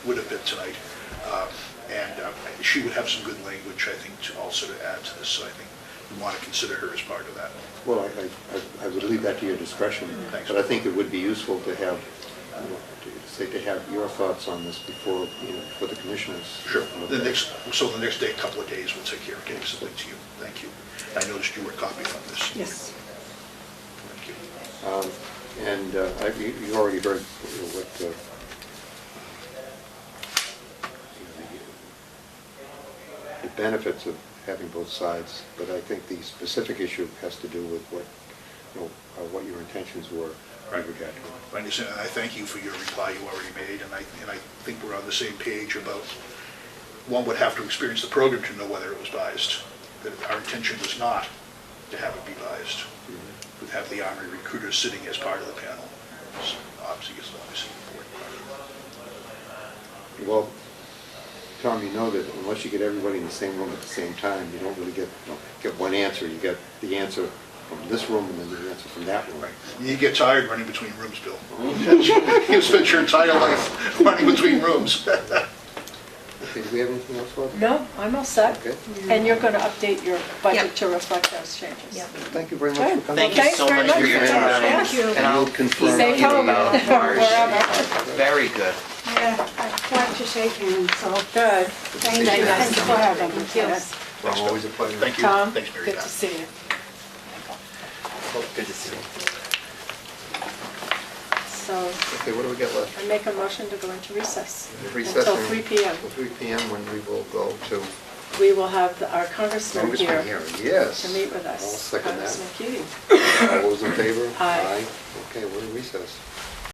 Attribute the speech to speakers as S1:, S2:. S1: would have been tonight. Um, And um, she would have some good language, I think, to also to add to this, so I think we want to consider her as part of that.
S2: Well, I, I- I- I would leave that to your discretion.
S1: Thanks.
S2: But I think it would be useful to have, you know, to say, to have your thoughts on this before, you know, for the commissioners.
S1: Sure. The next, so the next day, a couple of days, we'll take care of getting something to you. Thank you. I noticed you were copied on this.
S3: Yes.
S1: Thank you.
S2: Um, And uh, I- you you already heard you know, what, uh, you know, the- the benefits of having both sides, but I think the specific issue has to do with what, you know, uh, what your intentions were with regard to it.
S1: Randy, so I thank you for your reply you already made, and I, and I think we're on the same page about, one would have to experience the program to know whether it was biased, that our intention was not to have it be biased. We'd have the Army recruiters sitting as part of the panel, So obviously, it's obviously important.
S2: Well, Tom, you know that unless you get everybody in the same room at the same time, you don't really get, you don't get one answer. You get the answer from this room and then the answer from that room.
S1: Right. You get tired running between rooms, Bill. You spent your entire life running between rooms.
S2: Okay, do we have anything else, Bob?
S3: No, I'm all set.
S2: Okay.
S3: And you're going to update your budget
S4: Yep.
S3: to reflect those changes.
S4: Yep.
S2: Thank you very much for
S3: Good.
S2: coming.
S5: Thank you
S3: Thanks
S5: so
S3: very
S5: much for
S3: much
S5: your
S3: for
S5: time.
S3: coming. Thank you.
S5: And I'll
S2: We'll confirm.
S5: email
S3: Safe
S5: you
S3: home,
S5: about
S3: or
S5: ours.
S3: wherever.
S5: Very good.
S6: Yeah, I want to shake hands, so
S3: Good.
S6: thank you, thank you for having me. Yes.
S2: Well, Always a pleasure.
S1: Thank you.
S3: Tom,
S1: Thanks, Mary
S3: good to
S1: Beth.
S3: see you.
S5: Good to see you.
S3: So
S2: Okay, what do we got left?
S3: I make a motion to go into recess. Until
S2: Recessing
S3: 3 p.m.
S2: Till 3 p.m. when we will go to
S3: We will have our congressman
S2: Congressman
S3: here
S2: here. Yes.
S3: to meet with us.
S2: I'll second
S3: Congressman
S2: that.
S3: Keating.
S2: All those in favor?
S3: Aye.
S2: Okay, we're in recess.